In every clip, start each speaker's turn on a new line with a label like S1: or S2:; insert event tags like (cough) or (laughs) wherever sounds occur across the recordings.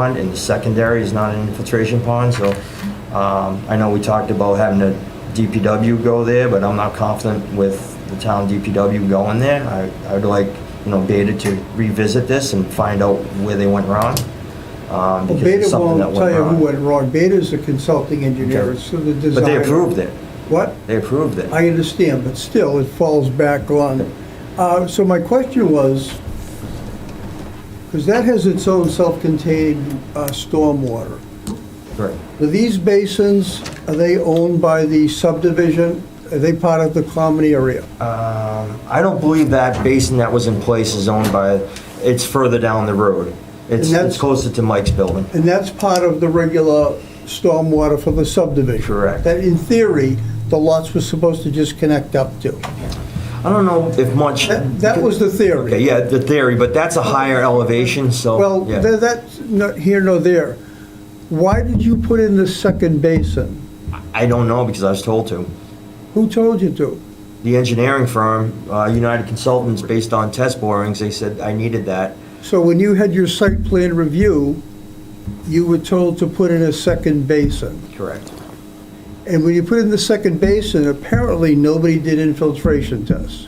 S1: pond, and the secondary is not an infiltration pond, so um, I know we talked about having the DPW go there, but I'm not confident with the town DPW going there. I- I would like, you know, Beta to revisit this and find out where they went wrong. um,
S2: Well,
S1: because
S2: Beta
S1: it's something that
S2: won't tell you
S1: wrong.
S2: who went wrong. Beta's a consulting engineer,
S1: Okay.
S2: it's the designer.
S1: But they approved it.
S2: What?
S1: They approved it.
S2: I understand, but still, it falls back on. Uh, So my question was, because that has its own self-contained uh, stormwater.
S1: Correct.
S2: Are these basins, are they owned by the subdivision? Are they part of the common area?
S1: Um, I don't believe that basin that was in place is owned by, it's further down the road. It's,
S2: And that's-
S1: it's closer to Mike's building.
S2: And that's part of the regular stormwater for the subdivision?
S1: Correct.
S2: That in theory, the lots were supposed to just connect up to.
S1: I don't know if much.
S2: That that was the
S1: Okay,
S2: theory.
S1: Yeah, the theory, but that's a higher elevation, so.
S2: Well,
S1: yeah.
S2: tha- that's not here nor there. Why did you put in the second basin?
S1: I don't know because I was told to.
S2: Who told you to?
S1: The engineering firm, uh, United Consultants, based on test borings, they said I needed that.
S2: So when you had your site plan review, you were told to put in a second basin.
S1: Correct.
S2: And when you put in the second basin, apparently nobody did infiltration tests.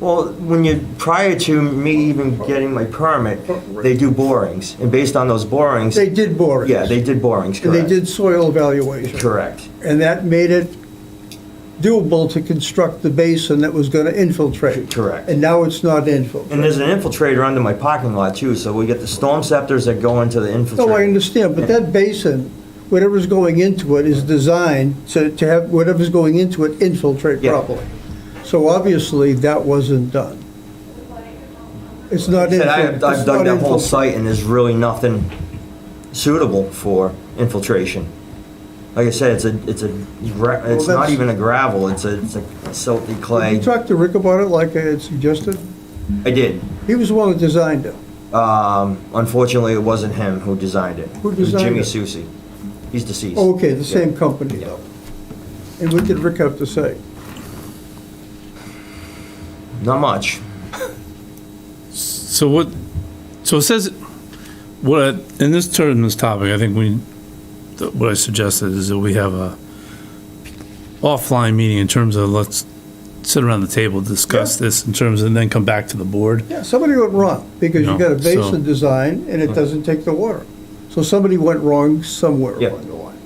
S1: Well, when you, prior to me even getting my permit, they do borings, and based on those borings,
S2: They did borings.
S1: yeah, they did borings,
S2: And they
S1: correct?
S2: did soil evaluation.
S1: Correct.
S2: And that made it doable to construct the basin that was going to infiltrate.
S1: Correct.
S2: And now it's not infiltrated.
S1: And there's an infiltrator under my parking lot too, so we get the storm scepters that go into the infiltrator.
S2: No, Oh, I understand, but that basin, whatever's going into it is designed to, to have whatever's going into it infiltrate
S1: Yeah.
S2: properly. So obviously, that wasn't done. It's not.
S1: Said I
S2: infil-
S1: have- I've
S2: it's
S1: dug
S2: not
S1: that whole
S2: infil-
S1: site and there's really nothing suitable for infiltration. Like I said, it's a, it's a, gra- it's not
S2: that's-
S1: even a gravel, it's a, it's a silty
S2: Did
S1: clay.
S2: You talked to Rick about it like I had suggested?
S1: I did.
S2: He was the one that designed it.
S1: Um, unfortunately, it wasn't him who designed it.
S2: Who
S1: It was
S2: designed
S1: Jimmy
S2: it? Oh,
S1: Susi. He's deceased.
S2: Okay, the same
S1: Yeah.
S2: company
S1: Yeah.
S2: though. And what did Rick have to say?
S1: Not much.
S3: So what, so it says, what, I- in this term, this topic, I think we, th- what I suggested is that we have a offline meeting in terms of let's sit around the table, discuss this in terms, and then come back to the board.
S2: Yeah, somebody went wrong, because you
S3: No,
S2: got a
S3: so-
S2: basin design and it doesn't take the water. So somebody went wrong somewhere
S1: Yeah.
S2: along the line.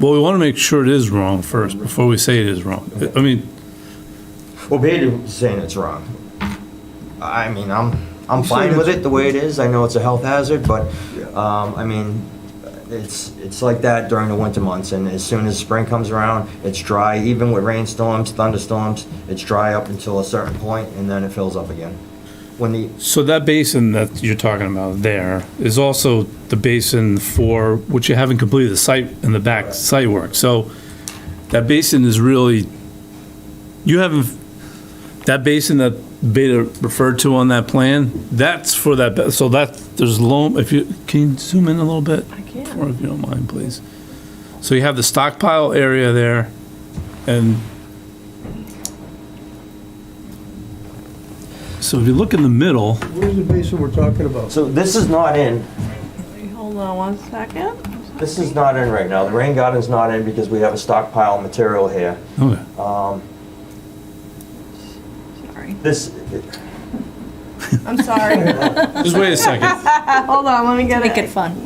S3: Well, we want to make sure it is wrong first, before we say it is wrong. I mean,
S1: Well, Peter was saying it's wrong. I mean, I'm, I'm
S2: said
S1: fine with
S2: it's-
S1: it the way it is. I know it's a health hazard, but,
S2: Yeah.
S1: um, I mean, it's, it's like that during the winter months, and as soon as spring comes around, it's dry, even with rainstorms, thunderstorms, it's dry up until a certain point, and then it fills up again. When the,
S3: so that basin that you're talking about there is also the basin for, which you haven't completed the site, in the back site work. So that basin is really, you haven't, that basin that Beta referred to on that plan, that's for that, ba- so that, there's loam, if you, can you zoom in a little bit?
S4: I
S3: Or
S4: can.
S3: if you don't mind, please. So you have the stockpile area there, and so if you look in the middle,
S2: Where's the basin we're talking about?
S1: so this is not in,
S4: Wait, Hold on one second.
S1: this is not in right now. The rain garden's not in because we have a stockpile of material here. Um,
S3: okay,
S4: Sorry.
S1: This,
S4: I'm sorry. (laughs)
S3: just wait a second.
S4: Hold on, let me get
S5: Make it
S4: it.
S5: fun.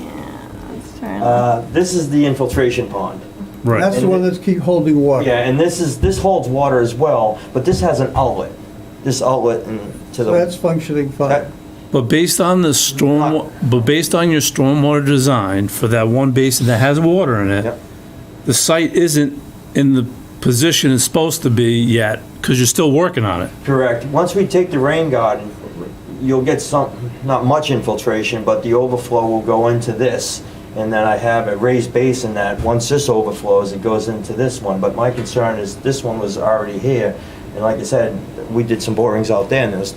S4: Let's turn it off.
S1: uh, this is the infiltration pond.
S2: That's
S3: Right,
S2: the one that's keep holding water.
S1: Yeah, and this is, this holds water as well, but this has an outlet. This outlet and to
S2: So
S1: the,
S2: That's functioning
S1: that,
S2: fine.
S3: but based on the storm, but based on your stormwater design for that one basin that has water in it,
S1: Yep.
S3: the site isn't in the position it's supposed to be yet, because you're still working on it.
S1: correct. Once we take the rain garden, you'll get some, not much infiltration, but the overflow will go into this. And then I have a raised basin that, once this overflows, it goes into this one. But my concern is this one was already here. And like I said, we did some borings out there and it was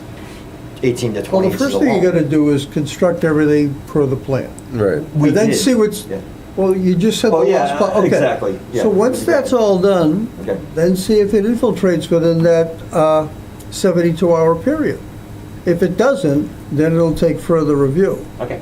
S1: 18 to
S2: Well,
S1: 20
S2: the
S1: inches
S2: first thing you
S1: along.
S2: gotta do is construct everything per the plan.
S6: Right.
S1: We
S2: And then
S1: did.
S2: see what's,
S1: Yeah.
S2: well, you just said the
S1: Oh, yeah,
S2: last part, okay.
S1: exactly, yeah.
S2: So once that's all done,
S1: Okay.
S2: then see if it infiltrates within that uh, 72-hour period. If it doesn't, then it'll take further review.
S1: Okay.